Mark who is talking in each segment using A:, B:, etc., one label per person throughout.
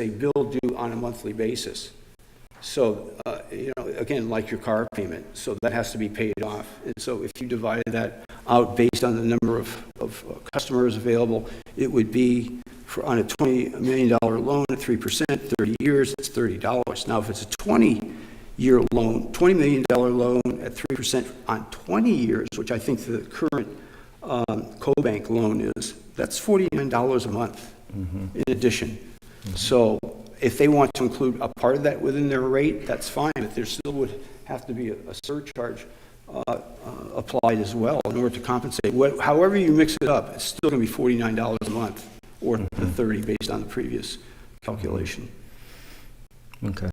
A: a bill due on a monthly basis. So, uh, you know, again, like your car payment, so that has to be paid off. And so if you divide that out based on the number of, of uh, customers available, it would be for, on a $20 million loan at 3%, 30 years, it's $30. Now, if it's a 20-year loan, $20 million loan at 3% on 20 years, which I think the current um, co-bank loan is, that's $49 a month in addition. So if they want to include a part of that within their rate, that's fine, but there still would have to be a a surcharge uh, uh, applied as well in order to compensate. What- However you mix it up, it's still going to be $49 a month, or the
B: Mm-hmm.
A: 30 based on the previous calculation.
B: Okay.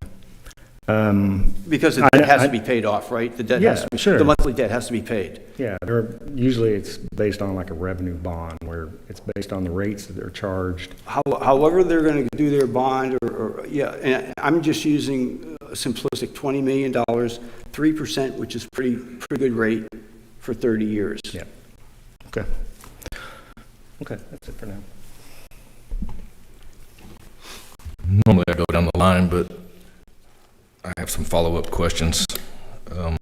B: Um,
A: Because the
B: I-
A: debt has
B: I-
A: to be paid off, right? The debt has,
B: Yeah,
A: to be-
B: sure.
A: the monthly debt has to be paid.
B: yeah, there, usually it's based on like a revenue bond where it's based on the rates that are charged.
A: How- However they're going to do their bond, or- or, yeah, and I'm just using a simplistic $20 million, 3%, which is pretty, pretty good rate for 30 years.
B: Yeah. Okay. Okay, that's it for now.
C: Normally I go down the line, but I have some follow-up questions um,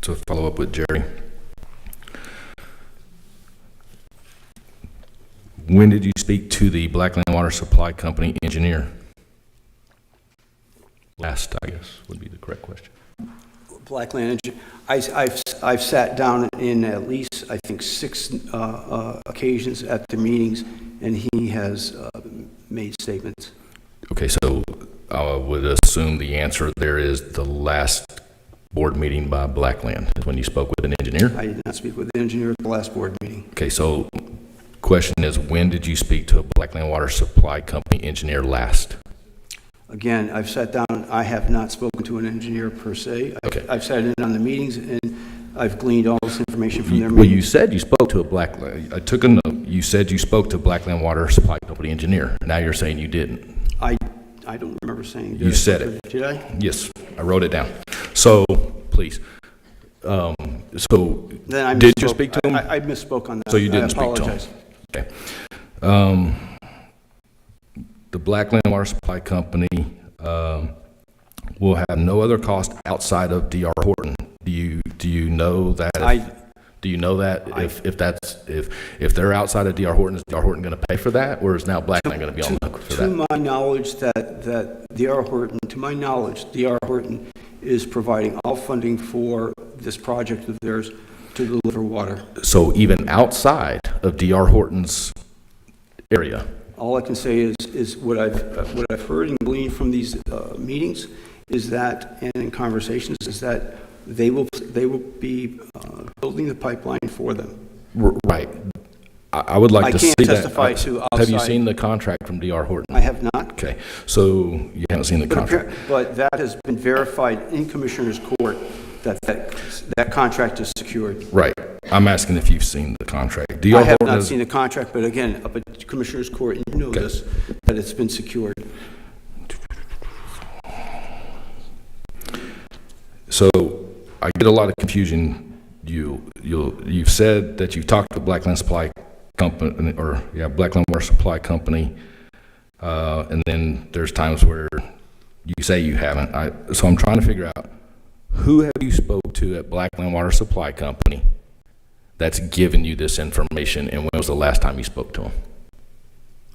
C: to follow up with Jerry. When did you speak to the Blackland Water Supply Company engineer? Last, I guess, would be the correct question.
A: Blackland, Engi- I- I've, I've sat down in at least, I think, six uh, uh, occasions at the meetings, and he has uh, made statements.
C: Okay, so I would assume the answer there is the last board meeting by Blackland, is when you spoke with an engineer?
A: I did not speak with the engineer at the last board meeting.
C: Okay, so question is, when did you speak to a Blackland Water Supply Company engineer last?
A: Again, I've sat down, I have not spoken to an engineer per se. I've-
C: Okay.
A: I've sat in on the meetings, and I've gleaned all this information from their
C: Well, you
A: meetings.
C: said you spoke to a Blackland, I took a note, you said you spoke to Blackland Water Supply Company engineer. Now you're saying you didn't.
A: I, I don't remember saying.
C: You said it.
A: Did I?
C: Yes, I wrote it down. So, please, um, so,
A: Then I
C: Did you
A: misspoke.
C: speak to him?
A: I I misspoke on that.
C: So you
A: I
C: didn't speak to him?
A: apologize.
C: okay. Um, the Blackland Water Supply Company, um, will have no other cost outside of DR Horton. Do you, do you know that? if-
A: I,
C: Do you know that?
A: I-
C: If, if that's, if, if they're outside of DR Horton, is DR Horton going to pay for that? Or is now Blackland going to be on the hook for that?
A: To my knowledge, that, that D.R. Horton, to my knowledge, D.R. Horton is providing all funding for this project of theirs to deliver water.
C: So even outside of DR Horton's area,
A: All I can say is, is what I've, uh, what I've heard and gleaned from these uh, meetings is that, and in conversations, is that they will, they will be uh, building the pipeline for them.
C: R- right? I, I would like
A: I
C: to see
A: can't
C: that.
A: testify to
C: Have you
A: outside.
C: seen the contract from DR Horton?
A: I have not,
C: Okay, so you haven't seen the
A: but
C: contract?
A: appar- but that has been verified in Commissioner's Court, that, that, that contract is secured.
C: Right. I'm asking if you've seen the contract. DR
A: I have
C: Horton
A: not
C: is-
A: seen the contract, but again, up at Commissioners Court, you know
C: Okay.
A: this, that it's been secured.
C: So I get a lot of confusion. You, you, you've said that you've talked to Blackland Supply Company, or, yeah, Blackland Water Supply Company, uh, and then there's times where you say you haven't. I, so I'm trying to figure out, who have you spoke to at Blackland Water Supply Company that's given you this information, and when was the last time you spoke to them?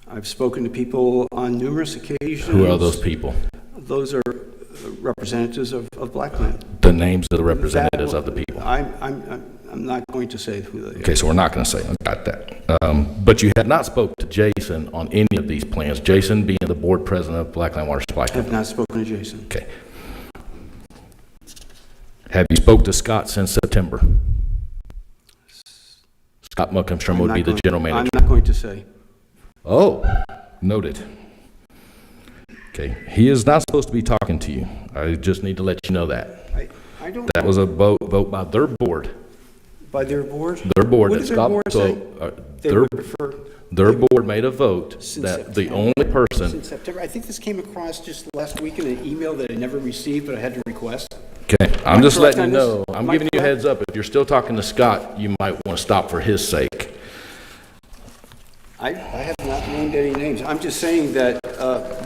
A: I've spoken to people on numerous occasions.
C: Who are those people?
A: Those are uh, representatives of, of Blackland.
C: The names of the representatives of the people.
A: I'm, I'm, I'm- I'm not going to say who they are.
C: Okay, so we're not going to say, I got that. Um, But you have not spoke to Jason on any of these plans, Jason being the board president of Blackland Water Supply
A: I have
C: Company.
A: not spoken to Jason.
C: Okay. Have you spoke to Scott since September? Scott Muckamstrom
A: I'm
C: would
A: not
C: be the
A: going-
C: general manager.
A: I'm not going to say.
C: Oh, noted. Okay, he is not supposed to be talking to you. I just need to let you know that.
A: I, I don't,
C: That was a vote, vote by their board,
A: by their board,
C: their board.
A: What
C: that
A: did their
C: Scott-
A: board
C: so,
A: say?
C: uh,
A: they
C: Their
A: would prefer
C: Their board made a vote
A: Since
C: that the
A: September.
C: only person,
A: since September. I think this came across just last week in an email that I never received, but I had to request.
C: okay, I'm just
A: correct
C: letting you
A: on this?
C: know, I'm
A: Am I
C: giving you a
A: correct?
C: heads up, if you're still talking to Scott, you might want to stop for his sake.
A: I, I have not named any names. I'm just saying that, uh,